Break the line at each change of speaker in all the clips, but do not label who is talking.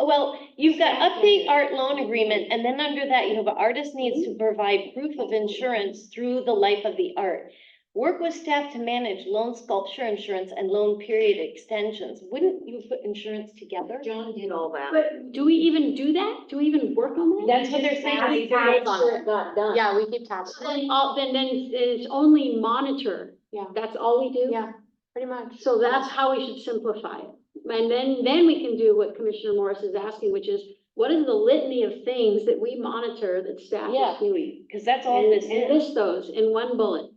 well, you've got update art loan agreement, and then under that, you have artist needs to provide proof of insurance through the life of the art. Work with staff to manage loan sculpture insurance and loan period extensions. Wouldn't you put insurance together?
John did all that.
But do we even do that? Do we even work on that?
That's what they're saying.
That's why it's not done.
Yeah, we keep tabs.
So Then all, then, then it's only monitor.
Yeah.
That's all we do?
Yeah, pretty much.
So that's how we should simplify it. And then, then we can do what Commissioner Morris is asking, which is, what is the litany of things that we monitor that staff
Yeah.
is doing?
Because that's all
And,
this
and
is.
list those in one bullet.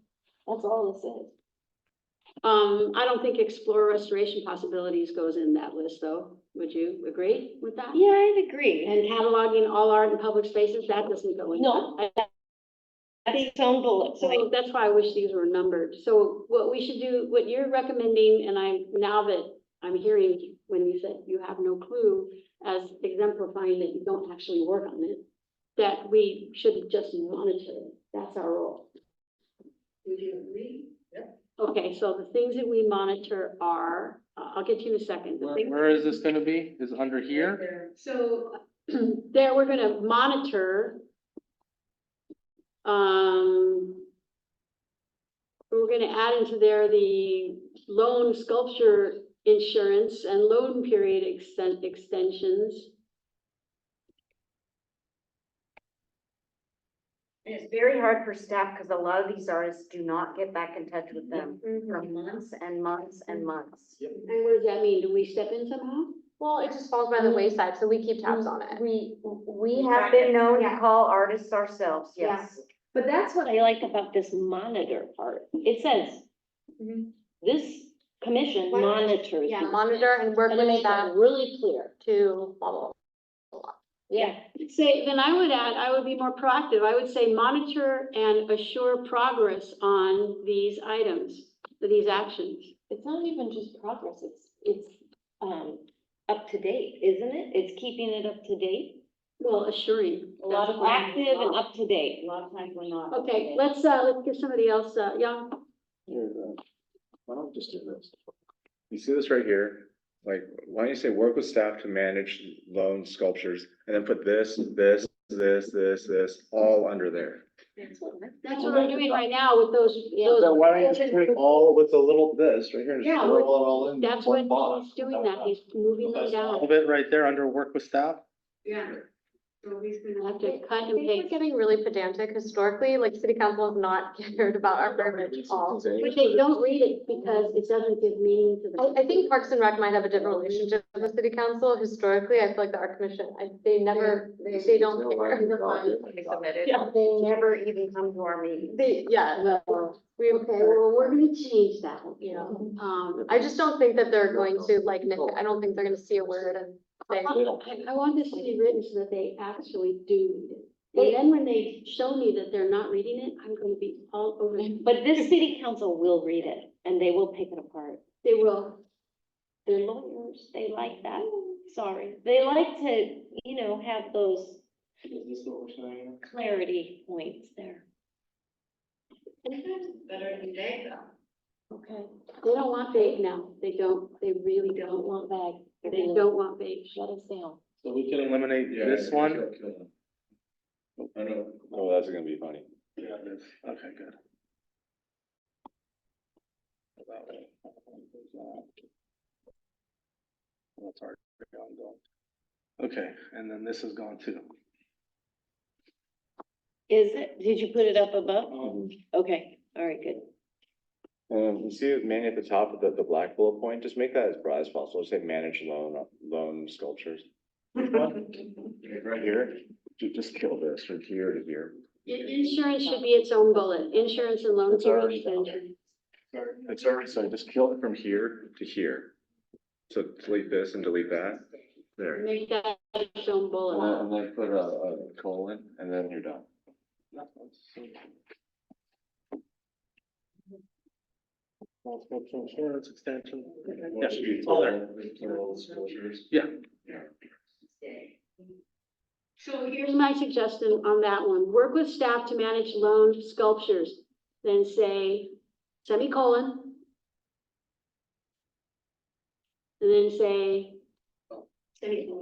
That's all this is.
Um, I don't think explore restoration possibilities goes in that list though. Would you agree with that?
Yeah, I'd agree.
And cataloging all art and public spaces, that doesn't go in.
No.
I-
That's its own bullet point.
So that's why I wish these were numbered. So what we should do, what you're recommending, and I'm, now that I'm hearing when you said you have no clue, as exemplifying that you don't actually work on it, that we should just monitor. it. That's our role.
Would you agree?
Okay, so the things that we monitor are, I- I'll get you in a second. The
Where,
things-
where is this gonna be? Is it under here?
So there, we're gonna monitor. Um. We're gonna add into there the loan sculpture insurance and loan period extent extensions.
And it's very hard for staff because a lot of these artists do not get back in touch with them for
Mhm.
months and months and months.
And what does that mean? Do we step in somehow?
Well, it just falls by the
We-
wayside, so we keep tabs on it.
We, we have been known to call artists ourselves, yes.
But that's what I like about this monitor part. It says,
Mhm.
this commission
Why-
monitors.
yeah,
these."
Monitor and work
And
with
make
that
that really clear.
to blah, blah, blah.
Yeah,
Say, then I would add, I would be more proactive. I would say monitor and assure progress on these items, these actions.
it's not even just progress, it's, it's, um, up to date, isn't it? It's keeping it up to date.
Well, assuring.
A lot
that's
of
what I-
active and up to date.
lot of times we're not.
Okay, let's, uh, let's give somebody else, uh, yeah,
Here's a- Why don't we just do this? You see this right here, like, why don't you say work with staff to manage loan sculptures and then put this, this, this, this, this, all under there.
that's what we're doing right now with those, those,
So why don't you just put all with a little this right here and
Yeah,
just roll it all in
that's what
one box?
he's doing that, he's moving them
All
down.
of it right there under work with staff?
Yeah.
We'll Have to cut
I
and
think we're
paste,
getting really pedantic historically, like city council has not cared about our verbiage at all.
but they don't read it because it doesn't give meaning to the.
I, I think Parks and Rec might have a different relationship with city council. Historically, I feel like the art commission, I, they never, they don't care.
They never even come to our meetings.
They, yeah,
Well,
we,
okay, well, we're gonna change that, you know,
know.
um.
I just don't think that they're going to like, nit- I don't think they're gonna see a word and say.
I, I want this to be written so that they actually do read it. And then when they show me that they're not reading it, I'm gonna be all over them.
But this city council will read it and they will pick it apart.
They will,
They're lawyers, they like that, sorry. They like to, you know, have those
Is this what we're saying?
clarity points there.
okay, they don't want vague now, they don't, they really
They don't
don't want,
want that.
they don't want vague.
Shut us down.
So we can eliminate this one?
I know. Oh, that's gonna be funny.
Yeah, it is. Okay, good. That's already ongoing. Okay, and then this is gone too.
Is it? Did you put it up above?
Um,
Okay, all right, good.
Um, you see, it, Manny, at the top of the, the black bullet point, just make that as broad as possible, say manage loan, loan sculptures. Right here, ju- just kill this from here to here.
I- Insurance should be its own bullet, insurance and loan
It's
period
already down
extension.
there. It's already, so just kill it from here to here. So delete this and delete that, there.
Make that its own
And then-
bullet.
and then put a, a colon, and then you're done.
that one's so- Well, it's got Insurance extension. Yeah, should be all there. Yeah.
So here's my suggestion on that one, work with staff to manage loan sculptures, then say semicolon. And then say. Semicolon.